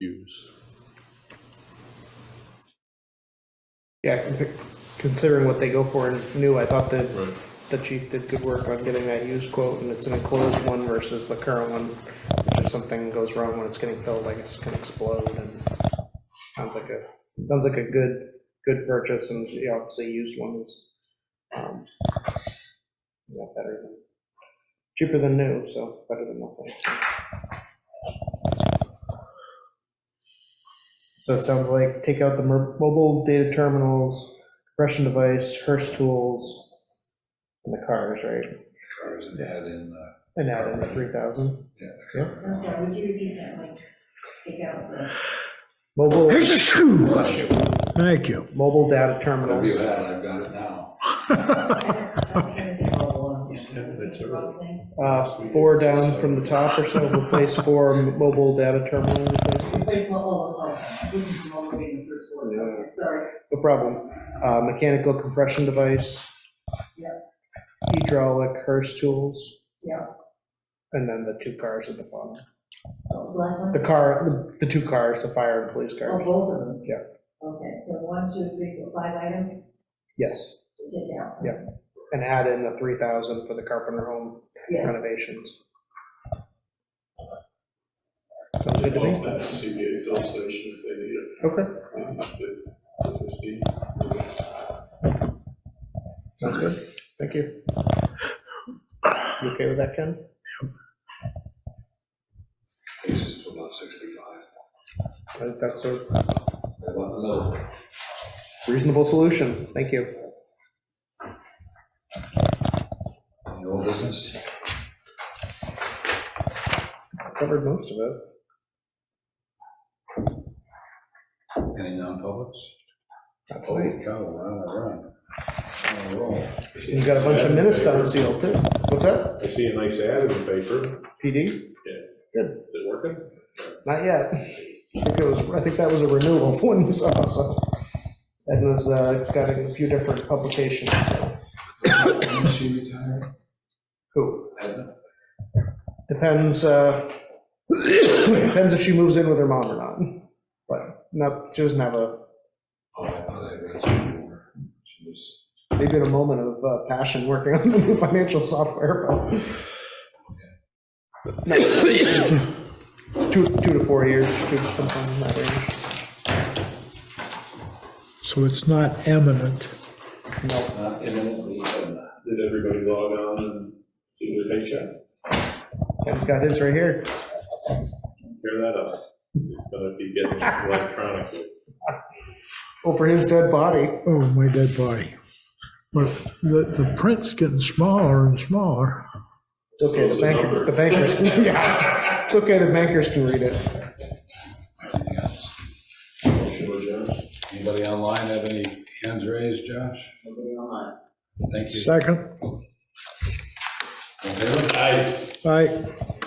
use. Yeah, con- considering what they go for in new, I thought that Right. the chief did good work on getting that used quote, and it's an enclosed one versus the current one, which if something goes wrong when it's getting filled, I guess it can explode, and sounds like a, sounds like a good, good purchase, and, you know, obviously, used one is, um, yeah, better than, cheaper than new, so better than nothing. So it sounds like take out the mer- mobile data terminals, compression device, Hearst tools, and the cars, right? Cars and add in, uh, And add in the 3,000. I'm sorry, would you repeat that, like, take out the? Mobile, Here's a screw. Thank you. mobile data whatever you terminals. had, I've got it now. Uh, Four down from the top or so, replace four m- mobile data terminal replacements. Replace mobile, oh, I didn't see mobile being the first word, okay, sorry. No problem. Uh, Mechanical compression device. Yeah. Hydraulic Hearst tools. Yeah. And then the two cars at the bottom. What was the last one? The car, the the two cars, the fire and police Oh, cars. both of them? Yeah. Okay, so one, two, three, four, five items Yes. to take out? Yeah. and add in the three thousand for the Carpenter home Yes, renovations. Sounds good to me. CBA fill station if they need it. Okay. Sounds good. Thank you. You okay with that, Ken? Takes us to about sixty-five. I think that's a About another, reasonable solution. Thank you. any old business? Covered most of it. Any non-publics? That's Holy nice. cow, we're on a run. On a roll. You got a bunch of minutes done sealed too. What's that? I see a nice ad in the paper. PD? Is it working? Not yet. I think it was, I think that was a renewal of one you saw, so. Edna's, uh, got a few different publications, so. When she retired? Who? Edna? Depends, uh, depends if she moves in with her mom or not, but no, she doesn't have a, Oh, I thought I read some more. She was, maybe in a moment of uh, passion working on the new financial software, but. No, Two, two to four years, two, sometime in that range. So it's not eminent. No, not imminently Edna. Did everybody log on and see their paycheck? Ken's got his right here. Tear that up. It's gonna be getting electronically. Well, for his dead body, Oh, my dead body. But the, the print's getting smaller and smaller. it's okay, Close the the banker, number. the bankers, yeah, it's okay, the bankers can read it. Anything else? Motion to adjourn. Anybody online have any hands raised, Josh? nobody online. Thank you. Second, All in favor? Aye. aye.